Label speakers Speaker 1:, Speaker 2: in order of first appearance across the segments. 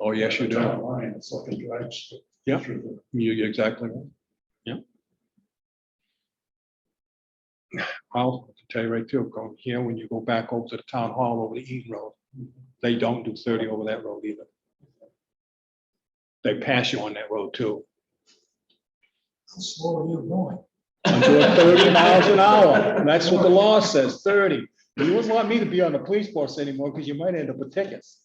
Speaker 1: Oh, yes, you
Speaker 2: The
Speaker 1: do.
Speaker 2: town Line, it's like a drive. strip
Speaker 1: Yeah.
Speaker 2: through the-
Speaker 1: You, you're exactly. right.
Speaker 3: Yeah.
Speaker 1: I'll tell you right too, going here, when you go back over to the town hall over the Eaton Road, they don't do thirty over that road either. They pass you on that road too.
Speaker 2: How slow are you going?
Speaker 1: I'm doing thirty miles an hour. That's what the law says, thirty. You wouldn't want me to be on the police force anymore because you might end up with tickets.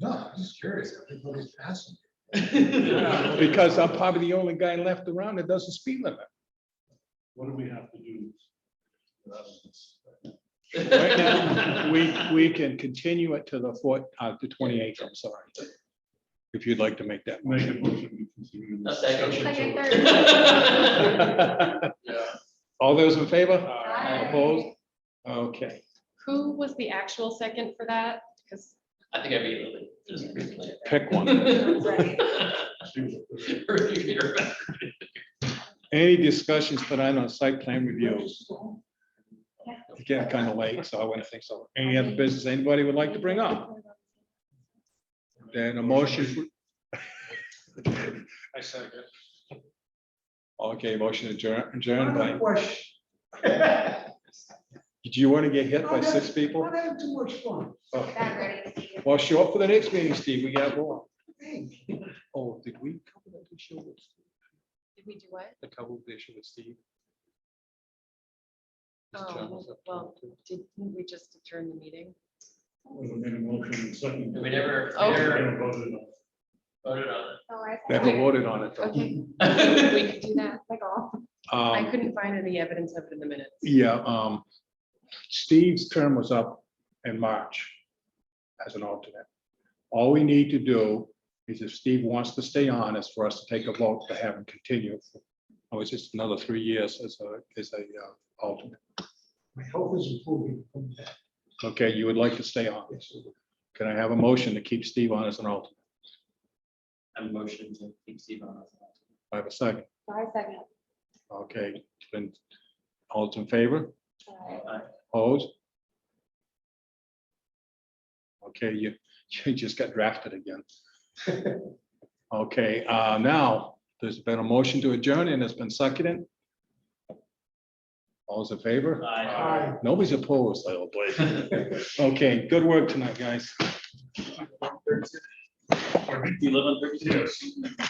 Speaker 2: No, I'm just curious, everybody's passing.
Speaker 1: Because I'm probably the only guy left around that doesn't speed limit.
Speaker 2: What do we have to do? That is-
Speaker 1: Right now, we, we can continue it to the fourth, uh, to twenty-eighth, I'm sorry. If you'd like to make that.
Speaker 2: Make a motion. we continue
Speaker 4: A
Speaker 2: this
Speaker 4: second.
Speaker 2: discussion
Speaker 5: Second,
Speaker 2: till-
Speaker 1: motion. All those in favor? Opposed?
Speaker 5: Aye.
Speaker 1: Okay,
Speaker 5: Who was the actual second for that? Because
Speaker 4: I think I beat it.
Speaker 1: pick one.
Speaker 4: Right.
Speaker 1: Any discussions tonight on site plan reviews? It's getting kind of late, so I wouldn't think so. Any other business anybody would like to bring up? Then a motion.
Speaker 2: I second.
Speaker 1: Okay, motion adjourned, adjourned by,
Speaker 2: Question.
Speaker 1: do you want to get hit by six people?
Speaker 2: I have too much fun.
Speaker 1: Oh. Well, show up for the next meeting, Steve. We got more. Oh, did we cover that issue with,
Speaker 5: did we do what?
Speaker 1: the cover the issue with Steve? Mr. John
Speaker 5: Oh,
Speaker 1: was up to
Speaker 5: well,
Speaker 1: it, too.
Speaker 5: didn't we just adjourn the meeting?
Speaker 2: We made a motion second.
Speaker 4: We never, we
Speaker 5: Oh.
Speaker 4: never
Speaker 2: Never voted on.
Speaker 4: voted on
Speaker 1: Never voted on it though.
Speaker 5: Okay, we
Speaker 4: it.
Speaker 5: could do that, like all. I
Speaker 1: Um,
Speaker 5: couldn't find any evidence of it in the minutes.
Speaker 1: yeah, um, Steve's term was up in March as an alternate. All we need to do is if Steve wants to stay on, is for us to take a vote to have him continue. Oh, it's just another three years as a, as a uh, alternate.
Speaker 2: My health is improving from that.
Speaker 1: Okay, you would like to stay on. Can I have a motion to keep Steve on as an alternate?
Speaker 4: I'm motion to keep Steve on.
Speaker 1: I have a second.
Speaker 5: Five seconds.
Speaker 1: Okay, then, all in favor,
Speaker 4: Aye.
Speaker 1: opposed? Okay, you, you just got drafted again. Okay, uh, now, there's been a motion to adjourn and it's been seconded. All's in favor?
Speaker 4: Aye.
Speaker 1: Nobody's opposed, I hope. Okay, good work tonight, guys.
Speaker 4: Do you live on thirty-two?